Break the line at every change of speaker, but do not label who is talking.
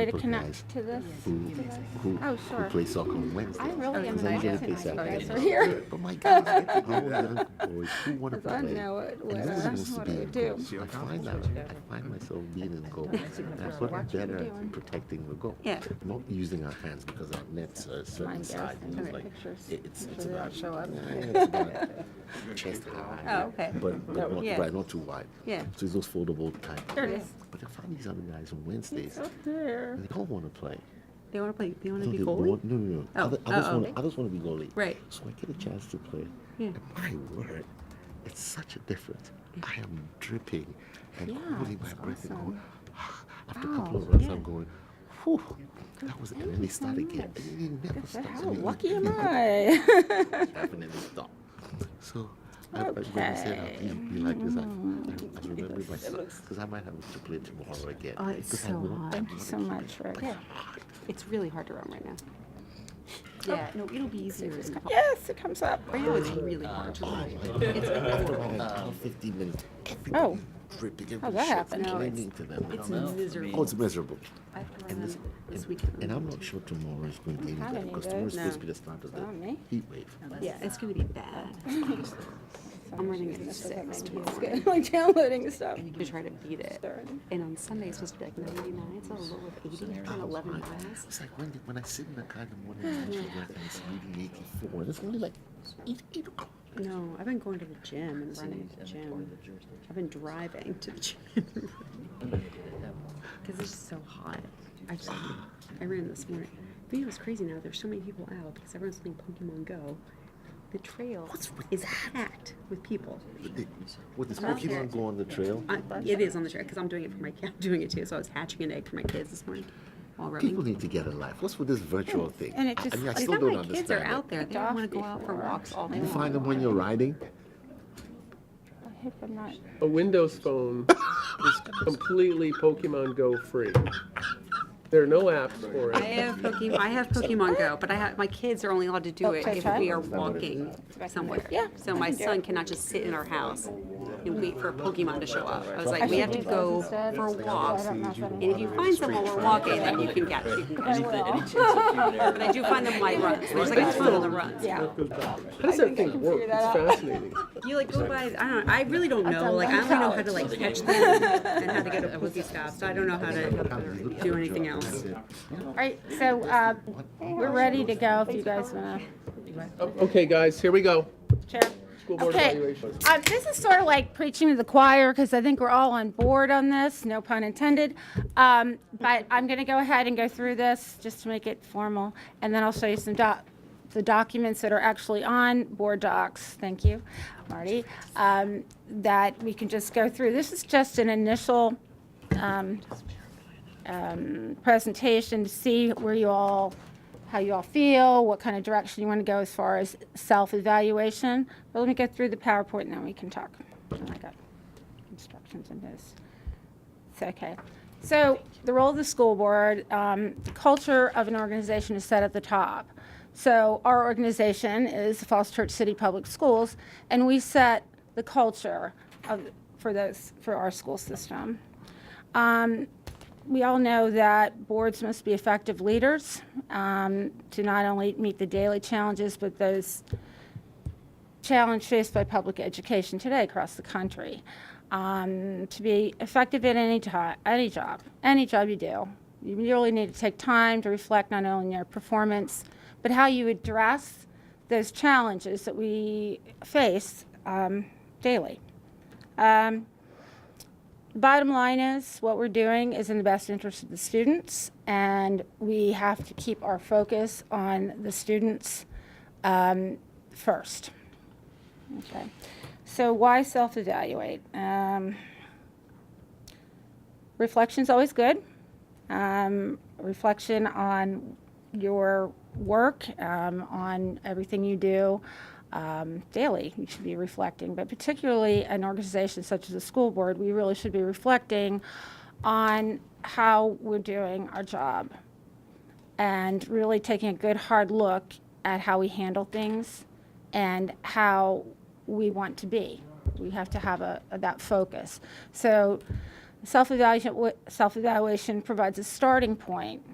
Way to
for
connect
guys
to this.
who, who,
Oh,
who
sure.
play soccer on Wednesday.
I really am
Because I'm
not
gonna
tonight.
play soccer.
You guys
on
are here.
Wednesday. But my guys, get to go, young boys who want to
'Cause I
play.
know it would,
And this is
uh,
supposed to
what
be
I
a
do.
goal. I find that I find myself being in goal. That's what I'm better at protecting the goal.
Yeah.
Not using our hands because our nets are a certain
Mine does.
size. and
Send
it's
me
like-
pictures.
it- It's
Make
it's
sure they
about
don't show up.
nah, it's about chest high.
Oh, okay.
But but not
Yeah.
but not too wide.
Yeah.
So it's those foldable type.
There it is.
But I find these other guys on Wednesdays,
Up there.
and they don't want to play.
They want to play. They want
No,
to be
they
goalie.
want- No, no, no.
Oh,
Other, others
uh-oh.
want, others want to be goalie.
Right.
So I get a chance to play.
Yeah.
And my word, it's such a difference. I am dripping and
Yeah,
holding my
it's
breath and
awesome.
going, after a
Wow,
couple of runs,
yeah.
I'm going, whew, that was, and then they
so
start again.
much.
And then it never stops.
How
and it-
lucky
it
am
never
I?
definitely stop. So I, I when you said I'll be, be like this, I, I,
Mm.
I remember myself because I might have to play tomorrow again.
Oh, it's
'cause I
so
will-
hot.
I
Thank
Thank
you
wanna
so
keep
much, Rick.
It's really hard to run right now. Yeah, no, it'll be easier as couple. Uh,
Yes, it comes up.
Right now, it's really hard
oh
to run.
After about like 12, 15 minutes,
Oh.
everybody's dripping and
How'd that happen? No,
it's-
complaining to them.
It's
Oh,
miserable.
it's miserable.
I have to run
And this,
them this
and
weekend.
I'm not sure tomorrow is going to be any
Not
better
any
because
good,
tomorrow is supposed to
no.
be the start of
Not
the
me.
heat wave.
Yeah, it's gonna be bad. I'm running at six
It's
tomorrow
good. Like downloading stuff.
to try to beat it.
Starting.
And on Sunday, it's supposed to be like 99. It's a low of 80 and 11 miles.
Oh, It's like when, when I sit in the car in the morning, it's usually like it's reading 84, and it's only like 8, 8 o'clock.
No, I've been going to the gym and running at the gym. I've been driving to the gym. Because it's just so hot. I just, I ran this morning. But you know, it's crazy now. There's so many people out because everyone's playing Pokemon Go. The trail
What's with
is packed with people.
With this
out there.
Pokemon Go on the trail,
I, it is on the trail because I'm doing it for my I'm doing it too. So I was hatching an egg for my kids this morning while running.
people need to get a life. What's with this virtual thing?
and it
I-
just-
I mean, I
It's
still
not
don't
my kids are
understand it.
out there. They don't want to go out for walks all day
You
long.
find them when you're riding?
I hope I'm not.
A Windows phone is completely Pokemon Go free. There are no apps for
I
it.
have Pokemon. I have Pokemon Go, but I have my kids are only allowed to do it
Okay,
if
try.
we are walking somewhere.
Yeah,
So my son cannot just sit in our house and wait for a Pokemon to show up. I was like, we have to go for a walk.
I don't know if
And if you find some while we're walking, then you can catch. You can catch.
Any, any chance of human error.
But I do find them light runs. There's like a ton of the runs.
Yeah.
How does that thing work?
figure
It's
that
fascinating.
You like go by. I don't. I really don't know. Like I only know how to like catch them and how to get a Pokestop. stops. I don't know how to do anything else.
All right, so uh, we're ready to go if you guys want
O- Okay, guys, here we go.
to. Chair.
School board
Okay.
evaluation.
Uh, this is sort of like preaching to the choir because I think we're all on board on this, no pun intended. Um, but I'm going to go ahead and go through this just to make it formal, and then I'll show you some doc, the documents that are actually on board docs. Thank you, Marty. Um, that we can just go through. This is just an initial um, um, presentation to see where you all, how you all feel, what kind of direction you want to go as far as self-evaluation. But let me go through the PowerPoint and then we can talk. Oh, I got instructions in this. It's okay. So the role of the school board, um, the culture of an organization is set at the top. So our organization is Falls Church City Public Schools, and we set the culture of, for those, for our school system. Um, we all know that boards must be effective leaders um, to not only meet the daily challenges, but those challenge faced by public education today across the country. Um, to be effective at any, jo- any job, any job you do, you really need to take time to reflect not only on your performance, but how you address those challenges that we face um, daily. Um, the bottom line is what we're doing is in the best interest of the students, and we have to keep our focus on the students um, first. Okay. So why self-evaluate? Um, reflection's always good. Um, reflection on your work, um, on everything you do um, daily, you should be reflecting. But particularly an organization such as the school board, we really should be reflecting on how we're doing our job and really taking a good hard look at how we handle things and how we want to be. We have to have a, that focus. So Self-evaluation, self-evaluation provides a starting point